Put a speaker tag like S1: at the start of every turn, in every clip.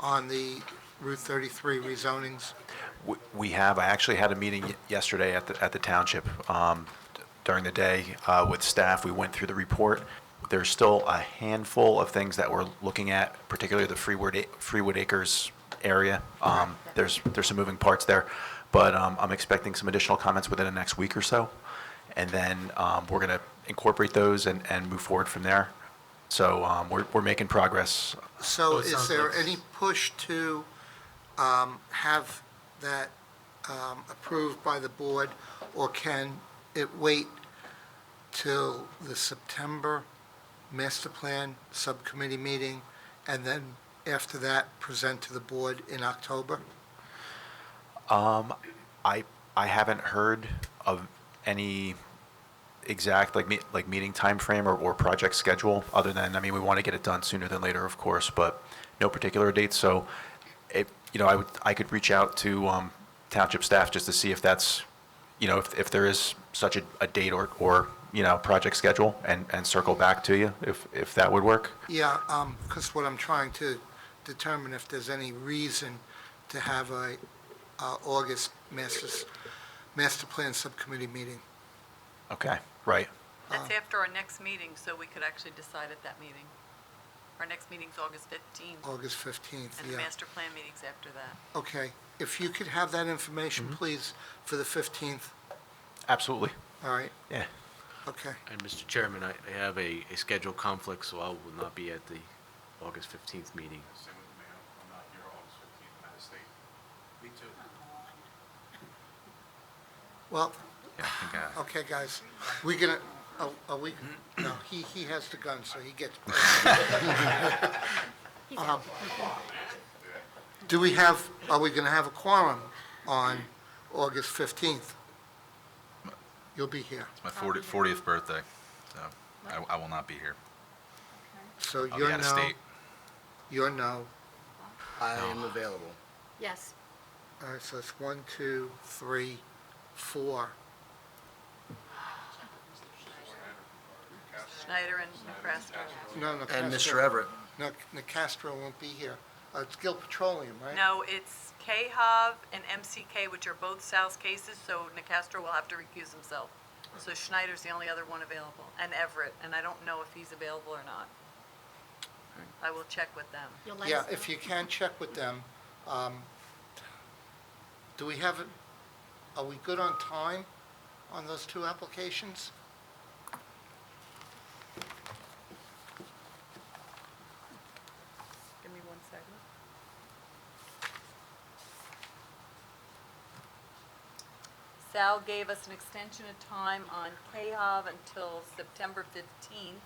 S1: on the Route 33 rezonings?
S2: We- We have, I actually had a meeting y- yesterday at the, at the township um, d- during the day uh, with staff. We went through the report. There's still a handful of things that we're looking at, particularly the Freewood, Ac- Freewood Acres area. Um, There's, there's some moving parts there, but um, I'm expecting some additional comments within the next week or so. And then um, we're going to incorporate those and, and move forward from there. So um, we're, we're making progress.
S1: So
S3: So it
S1: is
S3: sounds
S1: there
S3: like-
S1: any push to um, have that um, approved by the board, or can it wait till the September master plan subcommittee meeting, and then after that, present to the board in October?
S2: I, I haven't heard of any exact like me, like meeting timeframe or, or project schedule other than, I mean, we want to get it done sooner than later, of course, but no particular date. So it, you know, I would, I could reach out to, um, township staff just to see if that's, you know, if, if there is such a, a date or, or, you know, project schedule and, and circle back to you if, if that would work.
S1: Yeah, because what I'm trying to determine if there's any reason to have a uh, August masters, master plan subcommittee meeting.
S2: Okay, right.
S4: That's after our next meeting, so we could actually decide at that meeting. Our next meeting's August 15th,
S1: August 15th,
S4: and the
S1: Oh, yeah.
S4: master plan meeting's after that.
S1: Okay, if you could have that information, please, for the 15th,
S2: Absolutely.
S1: all right,
S2: Yeah.
S1: okay.
S3: And Mr. Chairman, I I have a, a scheduled conflict, so I will not be at the August 15th meeting.
S5: Same with me, I'm I'm not here August fifteenth, I'm out of state. Me too.
S1: Well,
S5: Yeah, I think uh, I.
S1: okay, guys, we gonna, are- are we, no, he, he has the gun, so he gets. Um, Do we have, are we gonna have a quorum on August 15th? You'll be here,
S5: It's my fortieth, fortieth birthday, so I, I will not be here.
S1: so
S5: I'll be
S1: you're
S5: out of
S1: no,
S5: state.
S1: you're no.
S6: I am available.
S7: Yes.
S1: All right, so it's one, two, three, four.
S4: Schneider and Nebraska.
S1: No, no.
S6: And
S1: Castro-
S6: Mr. Everett,
S1: No, Nicastro won't be here. Uh, It's Gil Petroleum, right?
S4: No, it's KHAV and MCK, which are both Sal's cases, so Nacastro will have to recuse himself. So Schneider's the only other one available, and Everett, and I don't know if he's available or not. I will check with them.
S7: You'll let
S1: Yeah,
S7: us
S1: if
S7: know.
S1: you can, check with them. Um, Do we have, it- are we good on time on those two applications?
S4: Give me one second. Sal gave us an extension of time on KHAV until September 15th,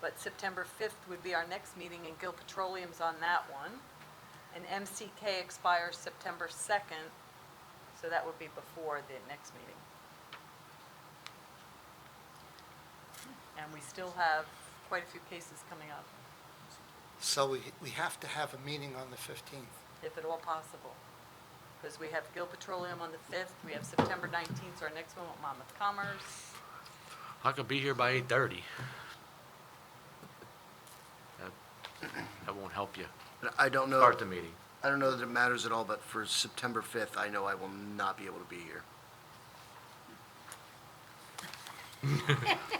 S4: but September 5th would be our next meeting, and Gil Petroleum's on that one. And MCK expires September 2nd, so that would be before the next meeting. And we still have quite a few cases coming up,
S1: So we, we have to have a meeting on the 15th.
S4: if at all possible. Because we have Gil Petroleum on the 5th, we have September 19th, so our next one with Monmouth Commerce.
S3: I could be here by 8:30. That- That won't help you.
S6: I don't know,
S3: Start the meeting.
S6: I don't know that it matters at all, but for September 5th, I know I will not be able to be here.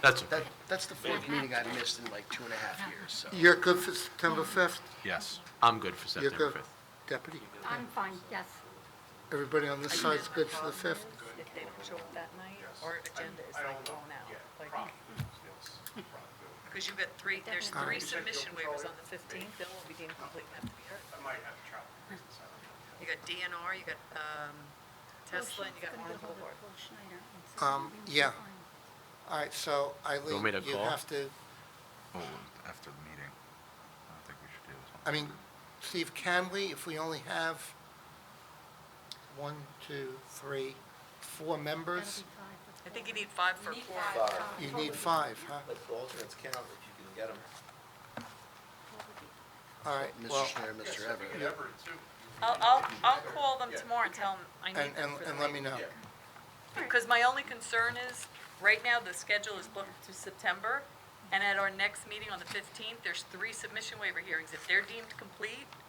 S3: That's,
S6: That, that's the fourth meeting I've missed in like two and a half years, so.
S1: You're good for September 5th?
S5: Yes.
S3: I'm good for
S1: You're
S3: September
S1: good,
S3: 5th.
S1: Deputy?
S7: I'm fine, yes.
S1: Everybody on this side's good for the 5th?
S4: If they don't show up that night, our agenda is like blown out. Because you've got three, there's three submission waivers on the 15th, that won't be deemed complete and have to be heard.
S5: I might have to travel.
S4: You got DNR, you got um, Tesla, and you got Arnold Boulevard.
S1: Um, yeah. All right, so Eileen,
S3: want me to
S1: you
S3: call?
S1: have to,
S5: Well, Oh, after the meeting, I don't think we should do this. one.
S1: I mean, Steve, can we, if we only have one, two, three, four members?
S4: I think you need five for four.
S1: You need five, huh?
S8: But the alternates count if you can get them.
S1: All right, well,
S6: Mr. Schneider, Mr. Everett.
S4: I'll, I'll, I'll call them tomorrow and tell them I
S1: and,
S4: need
S1: and,
S4: them for the
S1: and let me know.
S4: Because my only concern is, right now, the schedule is booked to September, and at our next meeting on the 15th, there's three submission waiver hearings. If they're deemed complete,